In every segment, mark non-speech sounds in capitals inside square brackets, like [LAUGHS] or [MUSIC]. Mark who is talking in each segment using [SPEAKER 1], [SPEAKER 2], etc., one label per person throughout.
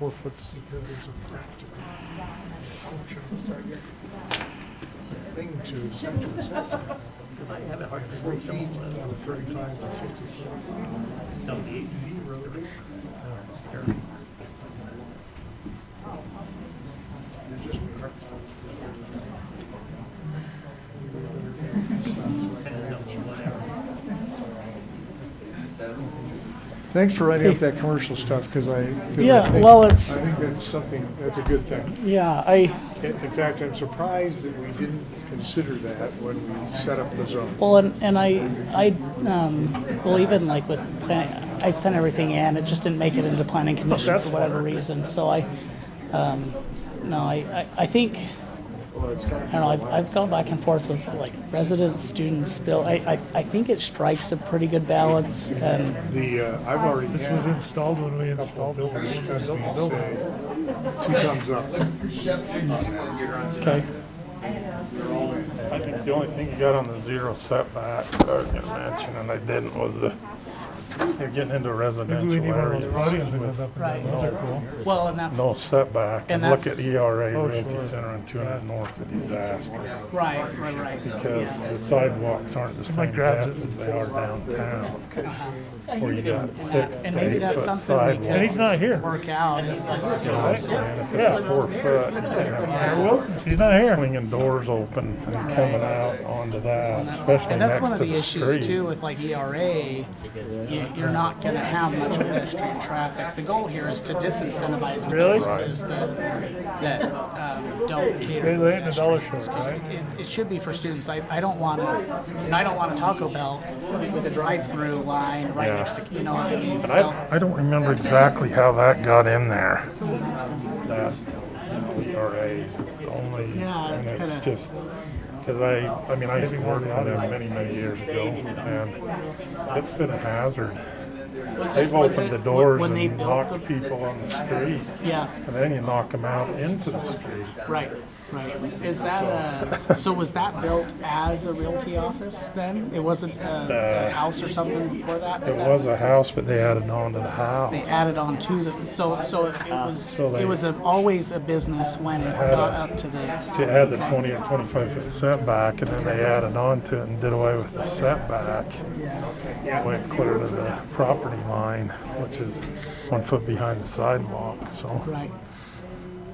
[SPEAKER 1] Well, if it's,
[SPEAKER 2] because it's a practical, functional thing to central setback. By four feet, on a thirty-five to fifty foot.
[SPEAKER 3] So these,
[SPEAKER 2] road. It's just.
[SPEAKER 3] and there's only one arrow.
[SPEAKER 1] thanks for writing up that commercial stuff, because I. 'cause I
[SPEAKER 4] Yeah,
[SPEAKER 1] think-
[SPEAKER 4] well, it's-
[SPEAKER 1] I think that's something, that's a good thing.
[SPEAKER 4] Yeah, I,
[SPEAKER 1] In in fact, I'm surprised that we didn't consider that when we set up the zone.
[SPEAKER 4] well, and, and I, I, um, well, even like with plan, I sent everything in, it just didn't make it into planning commission for whatever reason, so I, um, no, I, I, I think, I don't know, I've, I've gone back and forth with like residents, students, bill, I, I, I think it strikes a pretty good balance and,
[SPEAKER 1] The, uh, I've already had.
[SPEAKER 2] This was installed when we installed the
[SPEAKER 1] builders come in and say, Two thumbs up.
[SPEAKER 4] okay,
[SPEAKER 5] I think the only thing you got on the zero setback that I was gonna mention, and I didn't, was the, you're getting into
[SPEAKER 2] Maybe we need
[SPEAKER 5] residential
[SPEAKER 2] one of those podiums
[SPEAKER 5] areas
[SPEAKER 2] that goes
[SPEAKER 5] with
[SPEAKER 2] up and down, those are cool.
[SPEAKER 4] well, and that's,
[SPEAKER 5] no setback.
[SPEAKER 4] And
[SPEAKER 5] And look
[SPEAKER 4] that's-
[SPEAKER 5] at ERA
[SPEAKER 2] Oh,
[SPEAKER 5] Realty
[SPEAKER 2] sure.
[SPEAKER 5] Center and two hundred north of disaster.
[SPEAKER 4] right, right, right,
[SPEAKER 5] Because the sidewalks aren't the
[SPEAKER 2] Somebody
[SPEAKER 5] same
[SPEAKER 2] grabs
[SPEAKER 5] depth
[SPEAKER 2] it.
[SPEAKER 5] as they are downtown. Where you got
[SPEAKER 4] that-
[SPEAKER 5] six
[SPEAKER 4] Uh-huh. and
[SPEAKER 5] to
[SPEAKER 4] maybe
[SPEAKER 5] eight
[SPEAKER 4] that's
[SPEAKER 5] foot
[SPEAKER 4] something we could-
[SPEAKER 2] And he's
[SPEAKER 5] sidewalks.
[SPEAKER 2] not here.
[SPEAKER 4] work out, it's like,
[SPEAKER 5] You know what I'm saying? If it's a four foot, you know,
[SPEAKER 2] Mayor Wilson, she's not here.
[SPEAKER 5] swinging doors open and coming out onto that, especially
[SPEAKER 4] And that's
[SPEAKER 5] next
[SPEAKER 4] one of
[SPEAKER 5] to
[SPEAKER 4] the
[SPEAKER 5] the
[SPEAKER 4] issues too
[SPEAKER 5] street.
[SPEAKER 4] with like ERA, you- you're not gonna have much pedestrian traffic. The goal here is to disincentivize the
[SPEAKER 2] Really?
[SPEAKER 4] businesses that, that um, don't cater
[SPEAKER 2] They
[SPEAKER 4] to
[SPEAKER 2] lay in the
[SPEAKER 4] pedestrians.
[SPEAKER 2] dollar short,
[SPEAKER 4] 'Cause
[SPEAKER 2] right?
[SPEAKER 4] It, it should be for students. I, I don't want to, and I don't want a Taco Bell with a drive-through line right
[SPEAKER 5] Yeah.
[SPEAKER 4] next to, you know what I mean?
[SPEAKER 5] And
[SPEAKER 4] So,
[SPEAKER 5] I, I don't remember exactly how that got in there. That, you know, ERAs, it's only,
[SPEAKER 4] Yeah,
[SPEAKER 5] and
[SPEAKER 4] it's
[SPEAKER 5] it's
[SPEAKER 4] kinda-
[SPEAKER 5] just, cause I, I mean, I used to work for them many, many years ago and it's been a hazard. They've
[SPEAKER 4] was
[SPEAKER 5] opened
[SPEAKER 4] it-
[SPEAKER 5] the doors
[SPEAKER 4] when they
[SPEAKER 5] and
[SPEAKER 4] built
[SPEAKER 5] locked
[SPEAKER 4] the-
[SPEAKER 5] people on the street.
[SPEAKER 4] yeah,
[SPEAKER 5] And then you knock them out into the street.
[SPEAKER 4] right, right. Is
[SPEAKER 5] [LAUGHS]
[SPEAKER 4] that a, so was that built as a realty office then? It wasn't uh, a a house or something before that?
[SPEAKER 5] Uh, It was a house, but they added on to the house.
[SPEAKER 4] they added on to the so so it, it was
[SPEAKER 5] Ah, So they-
[SPEAKER 4] it was a, always a business when it
[SPEAKER 5] Had
[SPEAKER 4] got
[SPEAKER 5] a-
[SPEAKER 4] up to
[SPEAKER 5] So
[SPEAKER 4] the
[SPEAKER 5] you had the 20 or 25 foot setback, and then they added on to it and did away with the setback. Went clear to the property line, which is one foot behind the sidewalk, so.
[SPEAKER 4] right.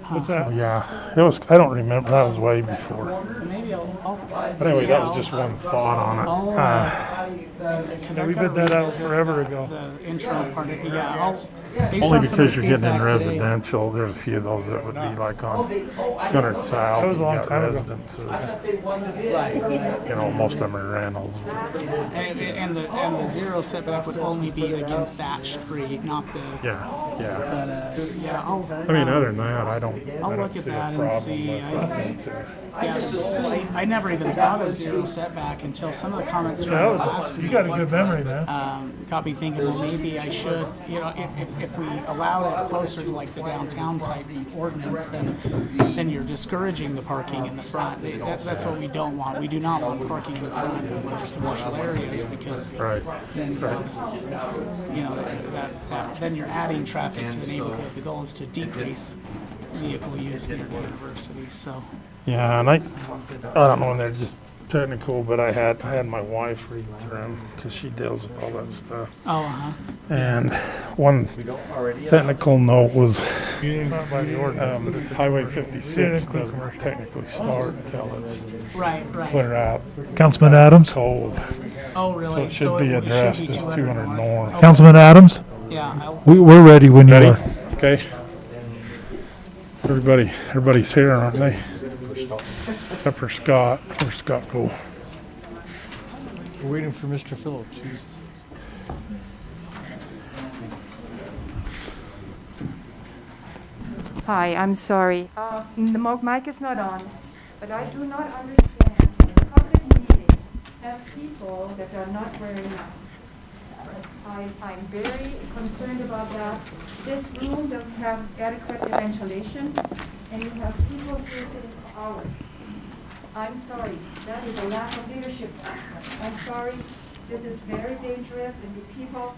[SPEAKER 2] What's that?
[SPEAKER 5] Yeah, it was, I don't remember, that was way before.
[SPEAKER 4] Maybe I'll. I'll
[SPEAKER 5] But anyway, that was just one thought on
[SPEAKER 4] I'll,
[SPEAKER 5] it.
[SPEAKER 2] Oh.
[SPEAKER 5] Uh,
[SPEAKER 4] uh, because
[SPEAKER 2] Yeah,
[SPEAKER 4] I've
[SPEAKER 2] we
[SPEAKER 4] gotta
[SPEAKER 2] bid that out
[SPEAKER 4] revisit
[SPEAKER 2] forever ago.
[SPEAKER 4] The intro part. Of, yeah, I'll, based
[SPEAKER 5] Only
[SPEAKER 4] on some of
[SPEAKER 5] because
[SPEAKER 4] the
[SPEAKER 5] you're getting in
[SPEAKER 4] feedback today-
[SPEAKER 5] residential, there's a few of those that would be like on 200 South.
[SPEAKER 2] That was a
[SPEAKER 5] you
[SPEAKER 2] long
[SPEAKER 5] got
[SPEAKER 2] time ago.
[SPEAKER 5] Residences. You know, most of them are rentals.
[SPEAKER 4] and, it- and the and the zero setback would only be against that street, not the.
[SPEAKER 5] Yeah, yeah.
[SPEAKER 4] But uh, yeah, I'll. um,
[SPEAKER 5] I mean, other than that, I don't,
[SPEAKER 4] I'll
[SPEAKER 5] I
[SPEAKER 4] look
[SPEAKER 5] don't
[SPEAKER 4] at
[SPEAKER 5] see a
[SPEAKER 4] that and
[SPEAKER 5] problem with
[SPEAKER 4] see.
[SPEAKER 5] that.
[SPEAKER 4] Yeah, I never even thought of zero setback until some of the comments from
[SPEAKER 2] That
[SPEAKER 4] the
[SPEAKER 2] was,
[SPEAKER 4] last
[SPEAKER 2] you
[SPEAKER 4] week
[SPEAKER 2] got a good memory, man.
[SPEAKER 4] um, got me thinking, well, maybe I should, you know, if, if, if we allow it closer to like the downtown type of ordinance, then, then you're discouraging the parking in the front. They- That, that's what we don't want. We do not want parking in the front of most commercial areas because
[SPEAKER 5] Right,
[SPEAKER 4] then, you know, that, that, then you're adding traffic to the neighborhood. The goal is to decrease vehicle use near the university, so.
[SPEAKER 5] yeah, and I, I don't know, and they're just technical, but I had, I had my wife read through them, cause she deals with all that stuff.
[SPEAKER 4] Oh, uh-huh.
[SPEAKER 5] And one technical note was,
[SPEAKER 2] You didn't- Not by the ordinance, but
[SPEAKER 5] um,
[SPEAKER 2] it's a
[SPEAKER 5] Highway
[SPEAKER 2] commercial. You didn't
[SPEAKER 5] fifty-six
[SPEAKER 2] include
[SPEAKER 5] doesn't
[SPEAKER 2] commercial.
[SPEAKER 5] technically start until it's
[SPEAKER 4] Right, right.
[SPEAKER 5] clear out
[SPEAKER 2] Councilman Adams?
[SPEAKER 5] cold.
[SPEAKER 4] Oh, really?
[SPEAKER 5] So it should be addressed as two hundred north.
[SPEAKER 2] Councilman Adams?
[SPEAKER 4] Oh, Yeah, I'll-
[SPEAKER 2] We, we're ready when you
[SPEAKER 5] Ready?
[SPEAKER 2] are.
[SPEAKER 5] Okay. Everybody, everybody's here, aren't they? Except for Scott. Where's Scott go?
[SPEAKER 1] We're waiting for Mr. Phillips. He's
[SPEAKER 6] Hi, I'm sorry. Uh, The mo- mic is not on, but I do not understand the public meeting has people that are not wearing masks. I, I'm very concerned about that. This room doesn't have adequate ventilation, and you have people here sitting for hours. I'm sorry, that is a lack of leadership. I'm sorry, this is very dangerous, and the people